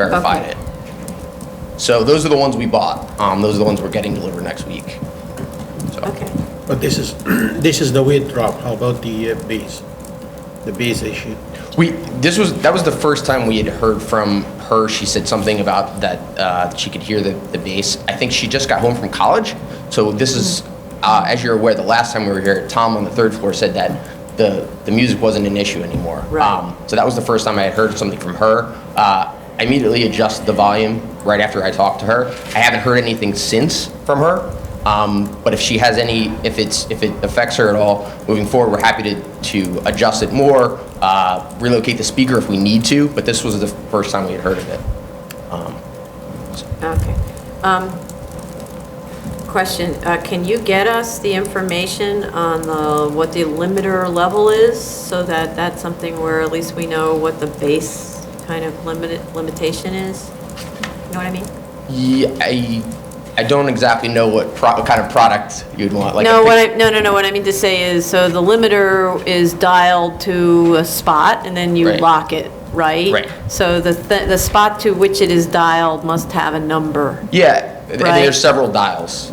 verified it. So those are the ones we bought. Um, those are the ones we're getting delivered next week. Okay. But this is, this is the weight drop, how about the uh, base? The base issue? We, this was, that was the first time we had heard from her. She said something about that uh, she could hear the, the bass. I think she just got home from college. So this is, uh, Mm-hmm. as you're aware, the last time we were here, Tom on the third floor said that the, the music wasn't an issue anymore. Right. Um, So that was the first time I had heard something from her. Uh, I immediately adjusted the volume right after I talked to her. I haven't heard anything since from her. Um, But if she has any, if it's, if it affects her at all, moving forward, we're happy to, to adjust it more, uh, relocate the speaker if we need to, but this was the first time we had heard of it. Um, Okay. Um, Question, uh, can you get us the information on the, what the limiter level is? So that that's something where at least we know what the base kind of limit, limitation is? You know what I mean? Yeah, I, I don't exactly know what pro, what kind of product you'd want, like. a No, what pic- I, no, no, no, what I mean to say is, so the limiter is dialed to a spot and then you Right. lock it, right? Right. So the, th- the spot to which it is dialed must have a number. Yeah, and Right. there's several dials.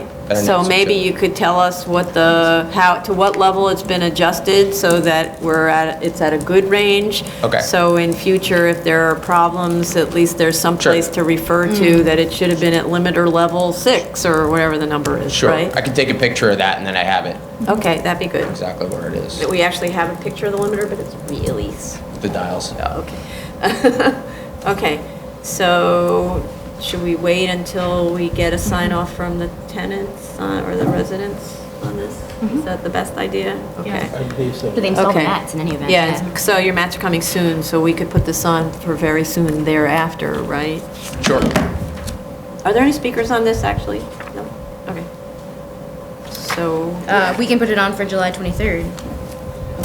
I don't know, so it's maybe okay. you could tell us what the, how, to what level it's been adjusted so that we're at, it's at a good range. Okay. So in future, if there are problems, at least there's some place to refer to that it should have been at limiter level six or whatever the number is, Sure, right? I can take a picture of that and then I have it, Okay, that'd be good. exactly where it is, We actually have a picture of the limiter, but it's really, s- the dials, yeah. okay. Okay, so should we wait until we get a sign off from the tenants uh, or the Mm-hmm. residents on this? Is that the best idea? Okay. I believe so. But they install Okay. the mats in any event. Yeah, so your mats are coming soon, so we could put this on for very soon thereafter, right? Sure. Are there any speakers on this, actually? No? Okay. So, Uh, we can put it on for July 23rd.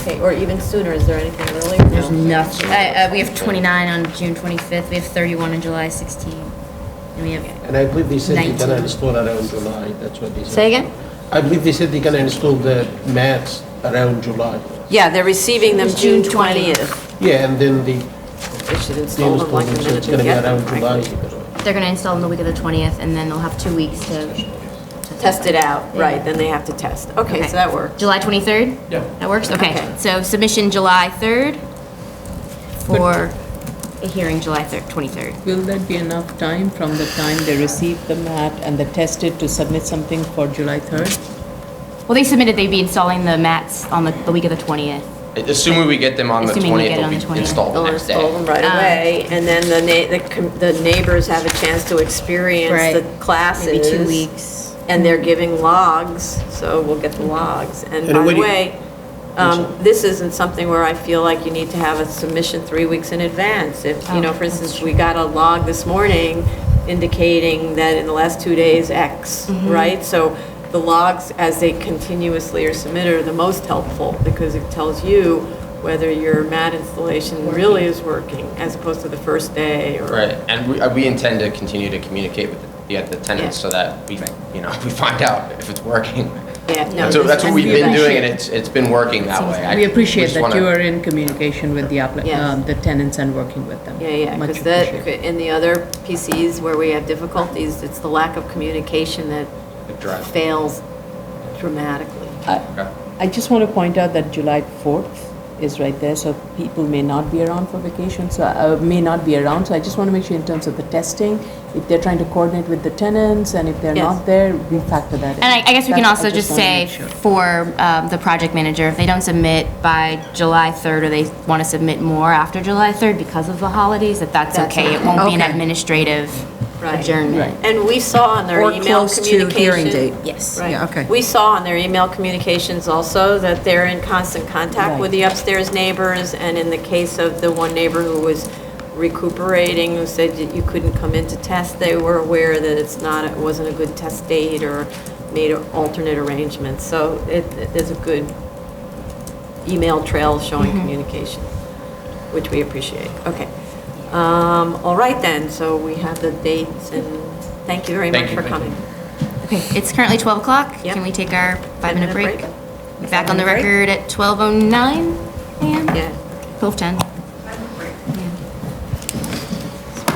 okay, or even sooner, is there anything earlier? There's No. nothing. Uh, uh, we have 29 on June 25th. We have 31 on July 16th. And we have. And I believe they said they gonna 19. install around July, that's what they said. Say again? I believe they said they gonna install the mats around July. Yeah, they're receiving them It's June June 20th. Yeah, and then they, They should they install them install like a them, so minute it's to gonna be get them, around July. frankly. They're going to install on the week of the 20th, and then they'll have two weeks to. to Test it out, Yeah. right, then they have to test. Okay, Okay. so that works. July 23rd? Yeah. That works? Okay. Okay. So submission July 3rd for a hearing July 3rd, 23rd. Will that be enough time from the time they receive the mat and they test it to submit something for July 3rd? Well, they submitted they'd be installing the mats on the, the week of the 20th. Assuming we get them on the Assuming we get it twentieth, on the they'll be 20th. installed the They'll next day. install them right Ah. Um, away, and then the na, the com- the neighbors have a chance to experience Right. the classes. Maybe two weeks. And they're giving logs, so we'll get the logs. And And by what the do you- way, um, this isn't something where I feel like you need to have a submission three weeks in advance. If, you know, for instance, we got a log this morning indicating that in the last two days, X, right? So the logs, as they continuously are submitted, are the most helpful because it tells you whether your mat installation really is working as opposed to the first day or. Right, and we, uh, we intend to continue to communicate with the, the tenants Yeah. so that we, you know, we find out if it's working. Yeah, no. That's what, that's what this- we've been appreciate- doing and it's, it's been working that way. I- We appreciate just that wanna- you are in communication with the appli- Yes. um, the tenants and working with them. Yeah, yeah, Much because that, appreciated. in the other PCs where we have difficulties, it's the lack of communication that It drives- fails dramatically. Okay. I just want to point out that July 4th is right there, so people may not be around for vacation, so, uh, may not be around, so I just want to make sure in terms of the testing, if they're trying to coordinate with the tenants, and if they're Yes. not there, we factor that in. And I, I guess we can That's- I also just wanna say make sure. for um, the project manager, if they don't submit by July 3rd, or they want to submit more after July 3rd because of the holidays, that that's That's okay. It okay. won't be an Okay. administrative Right. adjournment. And we saw on their Or email close to communication. hearing date. Yes. Right. Yeah, okay. We saw on their email communications also that they're in constant contact with the upstairs neighbors, and in the case of the one neighbor who was recuperating, who said that you couldn't come in to test, they were aware that it's not, it wasn't a good test date, or made alternate arrangements, so it, there's a good email trail showing communication, which we appreciate, okay. Um, all right then, so we have the dates, and thank you very Thank much you, for thank you. coming. Okay, it's currently 12 o'clock. Yep. Can we take our five-minute Five-minute oh break? Back on the record at 12:09 a.m.? Yeah. 12:10.